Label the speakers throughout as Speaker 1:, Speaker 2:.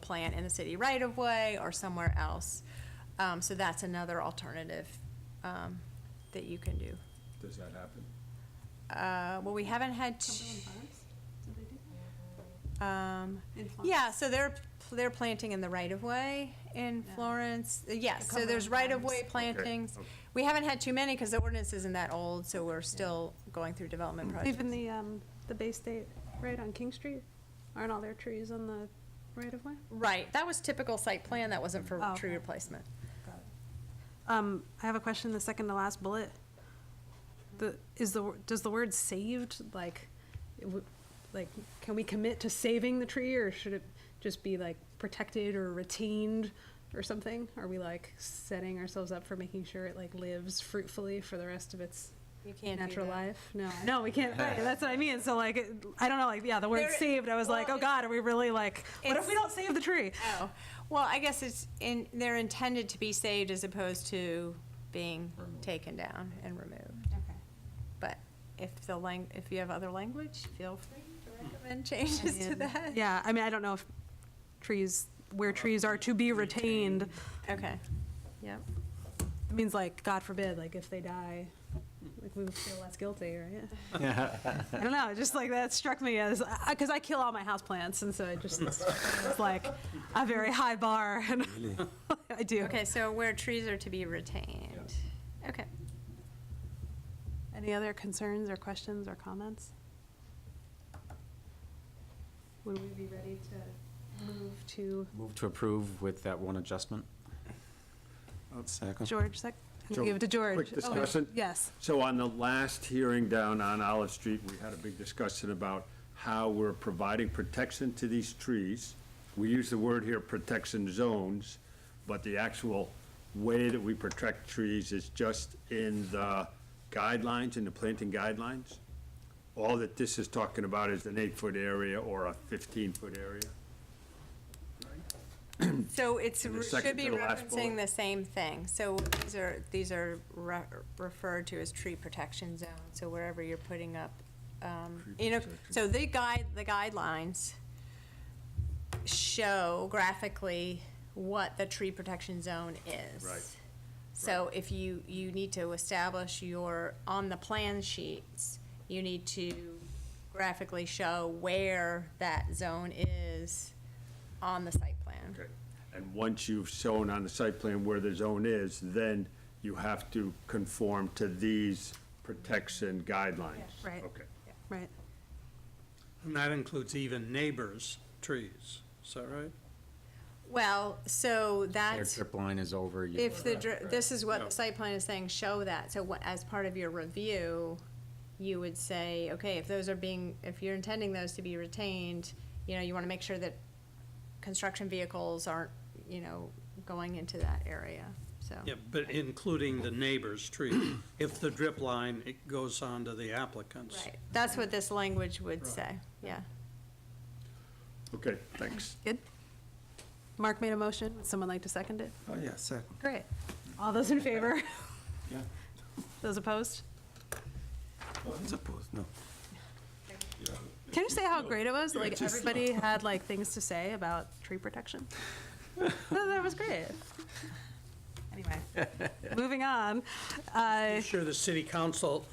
Speaker 1: plant in the city right of way or somewhere else. Um, so that's another alternative, um, that you can do.
Speaker 2: Does that happen?
Speaker 1: Uh, well, we haven't had. t-
Speaker 3: Cumberland Farms? Did they do
Speaker 1: Um,
Speaker 3: In Florence.
Speaker 1: yeah, so they're, they're planting in the right-of-way in
Speaker 3: Yeah.
Speaker 1: Florence. Uh, Yes, so
Speaker 3: Cumberland
Speaker 1: there's right-of-way
Speaker 3: Farms.
Speaker 1: plantings.
Speaker 2: okay.
Speaker 1: We haven't had too many because the ordinance isn't that old, so we're still going through development
Speaker 3: that? Even
Speaker 1: projects.
Speaker 3: the, um, the Bay State, right on King Street, aren't all their trees on the right of way?
Speaker 1: Right, that was typical site plan, that wasn't for
Speaker 3: Oh,
Speaker 1: tree
Speaker 3: okay.
Speaker 1: replacement.
Speaker 3: Um, I have a question, the second to last bullet. The, is the, wor- does the word saved, like, it would- like, can we commit to saving the tree, or should it just be like protected or retained or something? Are we like setting ourselves up for making sure it like lives fruitfully for the rest of its
Speaker 1: You can't do
Speaker 3: natural
Speaker 1: that.
Speaker 3: life? No, no, we can't, right, that's what I mean, so like, it- I don't know, like, yeah, the word
Speaker 1: There-
Speaker 3: saved, I was
Speaker 1: well,
Speaker 3: like, oh
Speaker 1: it's-
Speaker 3: god, are we really like, what if we
Speaker 1: it's-
Speaker 3: don't save the tree?
Speaker 1: Oh, well, I guess it's in, they're intended to be saved as opposed to being
Speaker 2: Removed.
Speaker 1: taken down and removed.
Speaker 3: Okay.
Speaker 1: But if the lang, if you have other language, feel free to recommend changes to
Speaker 3: mean,
Speaker 1: that.
Speaker 3: Yeah, I mean, I don't know if trees, where trees are to be retained,
Speaker 1: Okay, yep.
Speaker 3: it means like, God forbid, like if they die, like we would feel less guilty, right? I don't know, just like that struck me as, because I kill all my houseplants, and so it just, it's like a very high bar, and I do.
Speaker 1: Okay, so where trees are to be retained. Okay.
Speaker 3: Any other concerns or questions or comments? Would we be ready to move to
Speaker 4: Move to approve with that one adjustment. Oh, Second.
Speaker 3: George sec? I'm gonna
Speaker 2: So,
Speaker 3: Give it to George.
Speaker 2: quick
Speaker 3: Oh,
Speaker 2: discussion?
Speaker 3: Yes.
Speaker 2: So on the last hearing down on Olive Street, we had a big discussion about how we're providing protection to these trees. We use the word here, protection zones, but the actual way that we protect trees is just in the guidelines, in the planting guidelines. All that this is talking about is an eight-foot area or a fifteen-foot area.
Speaker 1: So it's,
Speaker 2: And the
Speaker 1: re-
Speaker 2: second
Speaker 1: should be
Speaker 2: to the last
Speaker 1: referencing
Speaker 2: bullet.
Speaker 1: the same thing. So these are, these are re- referred to as tree protection zone, so wherever you're putting up, um,
Speaker 2: Tree
Speaker 1: you know,
Speaker 2: protection.
Speaker 1: so the guide, the guidelines show graphically what the tree protection zone is.
Speaker 2: Right.
Speaker 1: So if you, you need to establish your, on the plan sheets, you need to graphically show where that zone is on the site plan.
Speaker 2: Okay, and once you've shown on the site plan where the zone is, then you have to conform to these protection guidelines?
Speaker 3: Right.
Speaker 2: Okay.
Speaker 3: Right.
Speaker 5: And that includes even neighbors' trees, is that right?
Speaker 1: Well, so
Speaker 4: Their
Speaker 1: that's,
Speaker 4: trip line is over. you-
Speaker 1: if the, dr- this is what
Speaker 5: Yeah.
Speaker 1: the site plan is saying, show that. So what, as part of your review, you would say, okay, if those are being, if you're intending those to be retained, you know, you want to make sure that construction vehicles aren't, you know, going into that area, so.
Speaker 5: Yeah, but including the neighbor's tree, if the drip line, it goes on to the applicants.
Speaker 1: Right, that's what this language would say, yeah.
Speaker 2: Okay, thanks.
Speaker 3: Good. Mark made a motion. Would someone like to second it?
Speaker 4: Oh, yeah, second.
Speaker 3: Great. All those in favor?
Speaker 4: Yeah.
Speaker 3: Those opposed?
Speaker 4: It's Oh, opposed, no.
Speaker 3: Can you say how great it was? Like, everybody had like things to say about tree protection. No, That was great. Anyway, moving on. Uh,
Speaker 5: I'm sure the city council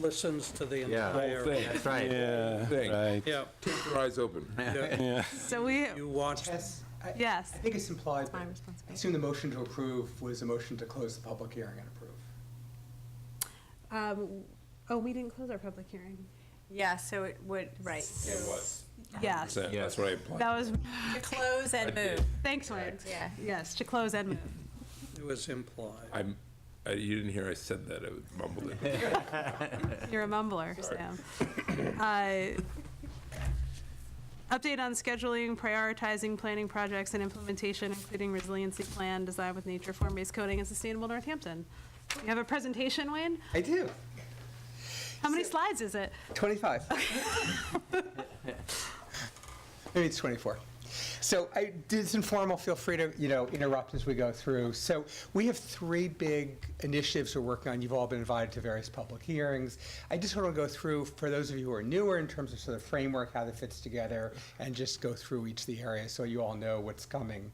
Speaker 5: listens to the
Speaker 4: Yeah.
Speaker 5: entire.
Speaker 4: That's right.
Speaker 6: Yeah, right.
Speaker 5: Yeah,
Speaker 6: Keep your eyes open.
Speaker 5: yeah,
Speaker 3: So we,
Speaker 5: you watch,
Speaker 7: Yes, I
Speaker 3: yes,
Speaker 7: I think it's implied,
Speaker 1: my
Speaker 7: but I
Speaker 1: responsibility.
Speaker 7: assume the motion to approve was a motion to close the public hearing and approve.
Speaker 3: um, oh, we didn't close our public hearing.
Speaker 1: Yeah, so it would, right,
Speaker 6: It was.
Speaker 3: Yes,
Speaker 6: That's what I implied.
Speaker 3: that was,
Speaker 1: to close and move,
Speaker 3: thanks, Wayne.
Speaker 1: yeah.
Speaker 3: Yes, to close and move.
Speaker 5: it was implied.
Speaker 6: I'm, uh, you didn't hear I said that, I mumbled it.
Speaker 3: You're a mumbler, Sam. Uh, Update on scheduling, prioritizing planning projects and implementation, including resiliency plan, design with nature, form-based coding, and sustainable Northampton. You have a presentation, Wayne?
Speaker 7: I do,
Speaker 3: How many slides is it?
Speaker 7: 25. Maybe it's 24. So I, this informal, feel free to, you know, interrupt as we go through. So we have three big initiatives we're working on. You've all been invited to various public hearings. I just want to go through, for those of you who are newer, in terms of sort of framework, how that fits together, and just go through each of the areas so you all know what's coming.